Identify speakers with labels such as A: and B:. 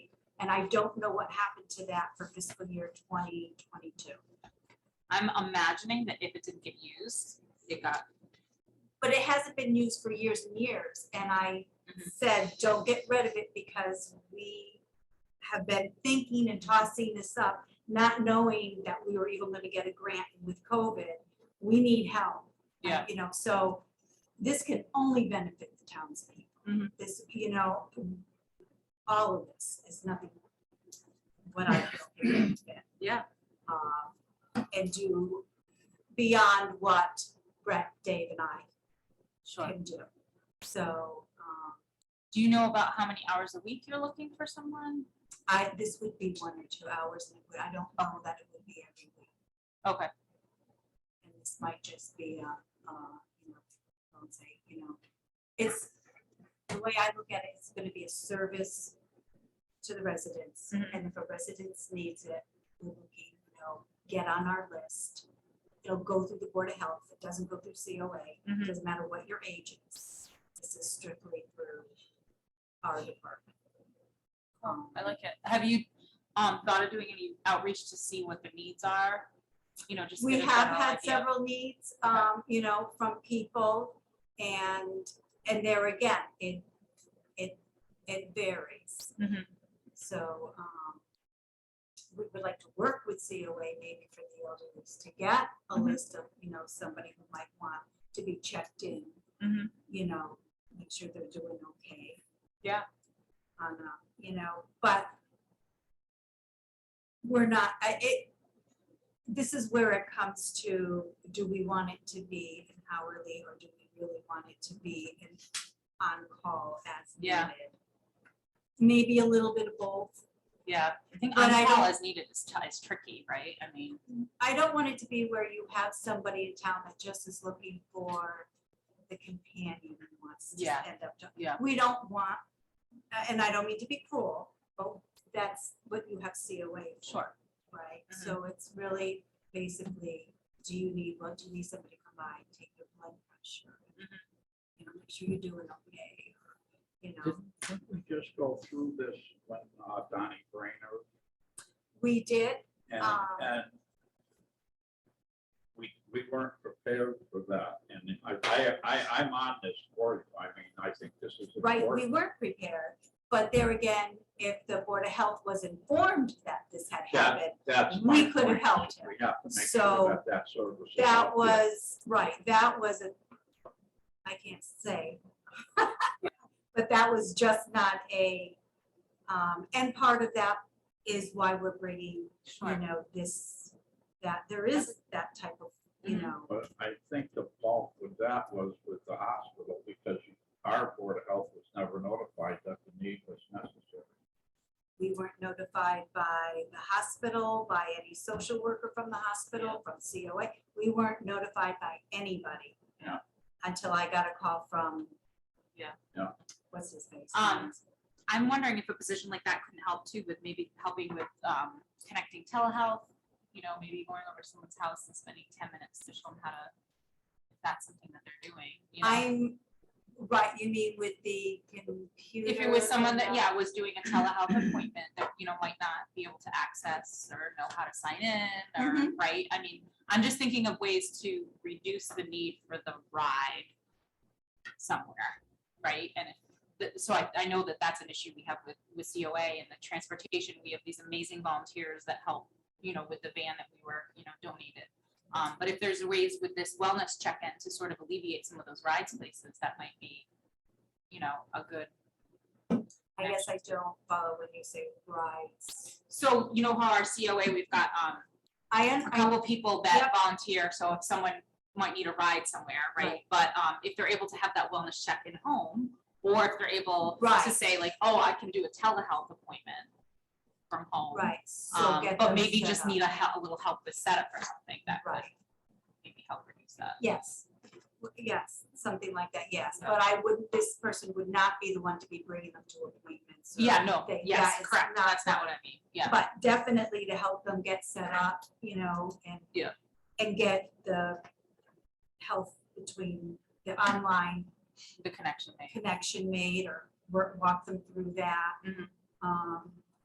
A: And I don't know what happened to that for fiscal year twenty twenty-two.
B: I'm imagining that if it didn't get used, it got,
A: But it hasn't been used for years and years, and I
B: Mhm.
A: said, don't get rid of it because we have been thinking and tossing this up, not knowing that we were even gonna get a grant with COVID. We need help.
B: yeah,
A: You know, so this can only benefit the townspeople.
B: Mhm.
A: This, you know, all of this is nothing. What I feel. it is.
B: yeah,
A: um, and do beyond what Brett, Dave, and I
B: sure.
A: can do. So um,
B: Do you know about how many hours a week you're looking for someone?
A: I, this would be one or two hours, and it would- I don't know that it would be every week.
B: Okay,
A: And this might just be, uh, uh, you know, I would say, you know, it's, the way I look at it, it's gonna be a service to the residents.
B: Mhm.
A: And if a resident needs it, we will, keep, you know, get on our list. It'll go through the Board of Health. It doesn't go through COA.
B: Mhm.
A: It doesn't matter what your age is. This is strictly through our department. Um,
B: I like it. Have you, um, thought of doing any outreach to see what the needs are? You know, just.
A: We
B: get a
A: have
B: general
A: had
B: idea.
A: several needs,
B: Okay.
A: um, you know, from people and, and there again, it, it, it varies.
B: Mhm.
A: So, um, we would like to work with COA maybe for the elderly to get a
B: Mhm.
A: list of, you know, somebody who might want to be checked in.
B: Mhm.
A: You know, make sure they're doing okay.
B: Yeah.
A: On, a- you know, but we're not, I, it, this is where it comes to, do we want it to be an hourly or do we really want it to be an on-call as
B: Yeah.
A: needed? Maybe a little bit of both.
B: Yeah, I think
A: But I
B: on-call
A: don't-
B: is needed is, t- is tricky, right? I mean,
A: I don't want it to be where you have somebody in town that just is looking for the companion and wants to
B: Yeah.
A: end up. to-
B: Yeah.
A: We don't want, a- and I don't mean to be cruel, but that's what you have COA for.
B: sure,
A: right?
B: Mhm.
A: So it's really basically, do you need, well, do you need somebody to come by and take your blood pressure?
B: Mhm.
A: You know, make sure you're doing okay, or, you know,
C: Didn't didn't we just go through this when uh, Donnie Brainerd
A: we did,
C: and,
A: Um.
C: and we, we weren't prepared for that. And I, I, I- I'm on this board. I mean, I think this is
A: right, we
C: important.
A: weren't prepared, but there again, if the Board of Health was informed that this had
C: Yeah.
A: happened,
C: That's
A: we
C: my
A: could have
C: point.
A: helped him.
C: We have to make
A: So,
C: sure that that service. is
A: that
C: out there.
A: was, right, that was a, I can't say. But that was just not a, um, and part of that is why we're bringing you
B: sure.
A: know, this, that there is that type of, you
B: Mhm.
A: know,
C: But I think the fault with that was with the hospital because our board of health was never notified that the need was necessary.
A: we weren't notified by the hospital, by any social worker from the hospital, from COA. We weren't notified by anybody.
C: Yeah.
A: Until I got a call from.
B: Yeah.
C: Yeah.
A: What's his face?
B: Um, I'm wondering if a position like that couldn't help too with maybe helping with, um, connecting telehealth. You know, maybe going over to someone's house and spending ten minutes to show them how to, if that's something that they're doing, you know?
A: I'm, right, you mean with the computer?
B: If it was someone
A: and
B: that,
A: the-
B: yeah, was doing a telehealth appointment that, you know, might not be able to access or know how to sign in
A: Mm-hmm.
B: or, right? I mean, I'm just thinking of ways to reduce the need for the ride somewhere, right? And if, th- so I, I know that that's an issue we have with, with COA and the transportation. We have these amazing volunteers that help, you know, with the van that we were, you know, donated. Um, but if there's ways with this wellness check-in to sort of alleviate some of those rides places, that might be, you know, a good
A: I guess I don't follow when you say rights.
B: So you know how our COA, we've got um
A: I, un-
B: a
A: I
B: couple people that volunteer, so if someone might need a ride somewhere, right?
A: Right.
B: But um if they're able to have that wellness check in home, or if they're able to
A: Right.
B: say like, oh, I can do a telehealth appointment from home.
A: Right, so
B: Um,
A: get
B: but
A: those
B: maybe
A: set
B: just
A: up.
B: need a help, a little help with setup or something that could
A: Right,
B: maybe help reduce that.
A: yes, W- yes, something like that, yes,
B: Yeah.
A: but I wouldn't, this person would not be the one to be bringing them to appointments. or
B: Yeah, no,
A: anything.
B: yes,
A: That is
B: correct, that's not what I mean, yeah,
A: But definitely to help them get set up, you know, and.
B: Yeah.
A: And get the health between the online
B: the connection thing.
A: connection made or work, walk them through that.
B: Mhm.
A: Um,